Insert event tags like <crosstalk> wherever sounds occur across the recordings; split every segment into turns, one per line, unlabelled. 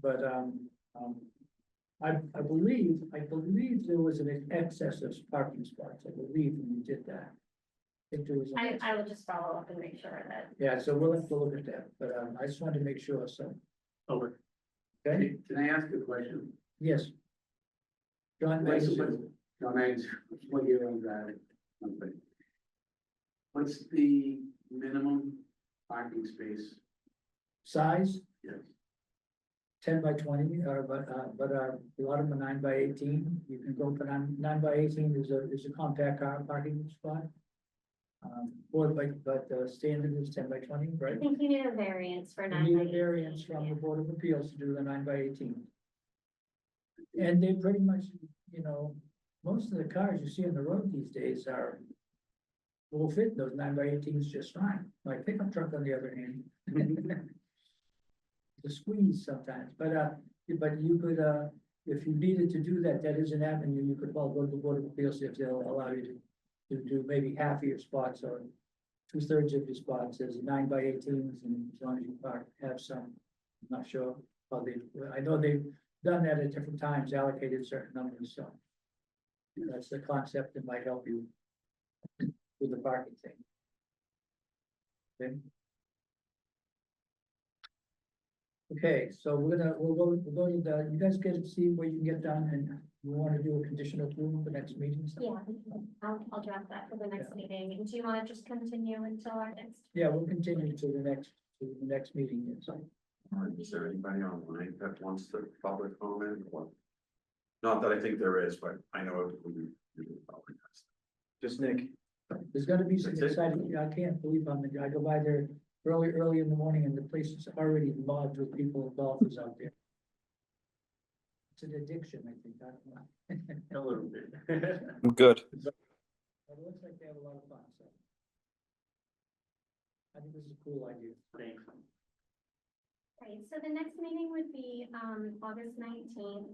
But, um, um, I, I believe, I believe there was an excess of parking spots, I believe when you did that. I think there was. an
I,
excess.
I will just follow up and make sure that,
Yeah, so we'll have to look at that, but, um, I just wanted to make sure, so,
Over.
okay,
Can I ask a question?
yes. John, wait a second.
John Haynes, what year on that? company? What's the minimum parking space?
size,
Yes.
ten by twenty, or but, uh, but, uh, a lot of them are nine by eighteen, you can go for nine, nine by eighteen is a, is a compact car parking spot. Um, or like, but the standard is ten by twenty,
I
right?
think you need a variance for
You
nine.
need
by
a
18,
variance from
yeah.
the Board of Appeals to do the nine by eighteen. And they pretty much, you know, most of the cars you see on the road these days are. Will fit those nine by eighteens just fine, my pickup truck on the other hand. The squeeze sometimes, but uh, but you could uh, if you needed to do that, that is an avenue, you could well go to the Board of Appeals if they'll allow you to. To do maybe half of your spots or two thirds of your spots as nine by eighteens and as long as you park, have some. I'm Not sure, how they, I know they've done that at different times, allocated certain numbers, so. That's the concept that might help you. With the parking thing. Okay. Okay, so we're gonna, we'll go, we'll go to the, you guys get to see what you can get done and we wanna do a conditional approval for next meeting. so-
Yeah, I'll, I'll draft that for the next meeting, and do you wanna just continue until our next?
Yeah, we'll continue to the next, to the next meeting, yes.
Or is there anybody online that wants to public comment or? Not that I think there is, but I know it would be. really public.
Just Nick.
There's gonna be some
That's it?
exciting, I can't believe I'm, I go by there early, early in the morning and the place is already mobbed with people with golfers out there. It's an addiction, I think, I don't know.
<laughs> A
<laughs>
little bit.
Good.
But it looks like they have a lot of fun, so. I think this is a cool idea.
Thanks.
Right, so the next meeting would be, um, August nineteenth.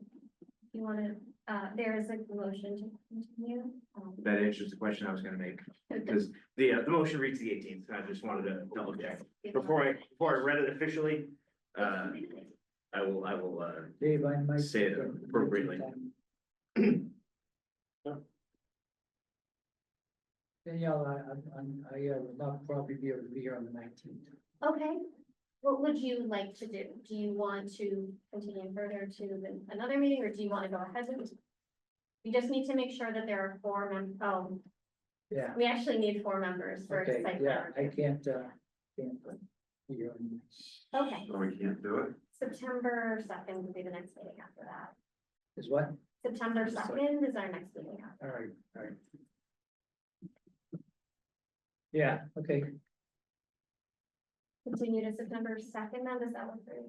If you wanna, uh, there is a motion to continue. um,
That answers the question I was gonna make, because the, uh, the motion reads the eighteenth, and I just wanted to double check. Before I, before I read it officially, uh, I will, I will, uh,
Dave, I might.
Say it appropriately.
<clears throat> Danielle, I, I'm- I'm, I uh, will not probably be able to be here on the nineteenth.
Okay, what would you like to do? Do you want to continue further to the- another meeting, or do you wanna go ahead and? We just need to make sure that there are four mem- oh,
Yeah,
we actually need four members for
okay,
site plan.
yeah, I
review.
can't, uh, can't uh, be here on the 19th.
Okay,
So we can't do it?
September second would be the next meeting after that.
Is what?
September
Sorry.
second is our next meeting.
All right, all right. Yeah, okay,
Continue to September second, then does that work for you?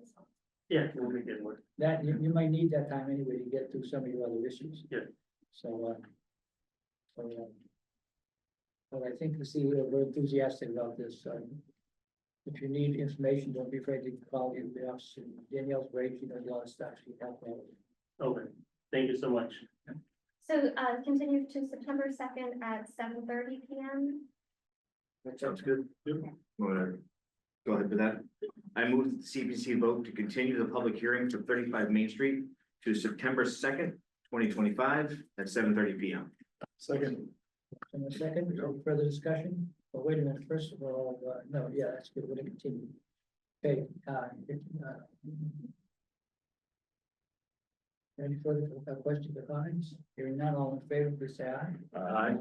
Yeah, we'll make it work.
that, you, you might need that time anyway to get through some of your other issues.
Yeah.
So, uh. So, uh. But I think, see, uh, we're we're enthusiastic about this, so. If you need information, don't be afraid to call you, the office, Danielle's great, she knows a lot of stuff, she can help out.
Over. Thank you so much.
So uh continue to September second at seven thirty P M.
sounds good. Wanna Go ahead with that. I move that the CPC vote to continue the public hearing to thirty-five Main Street to September second, twenty twenty-five at seven thirty P M.
Second. In a second, any further discussion? But wait a minute, first of all, uh, no, yeah, that's good, we're gonna continue. Okay, uh, if, uh. Any further uh, questions or comments? Hearing none, all in favor, please say aye.
Aye.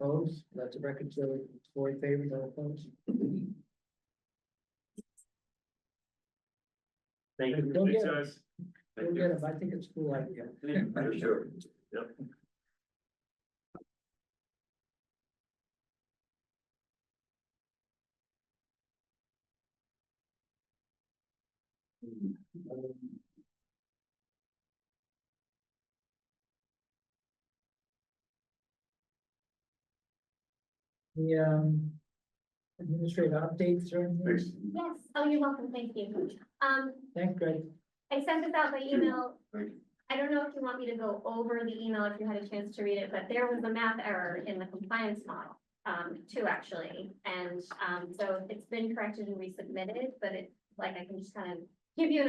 Opposed, let the record show it, four in favor, no opposed.
Thank you.
Don't get it. Go
Thanks,
get 'em, I think it's a cool idea.
guys.
I'm sure.
The, um. Administrative updates or anything?
Thanks.
Yes, oh, you're welcome, thank you. Um,
Thanks, Greg.
I sent this out by email.
Thank you.
I don't know if you want me to go over the email if you had a chance to read it, but there was a math error in the compliance model. Um, two actually, and um, so it's been corrected and resubmitted, but it, like, I can just kind of give you an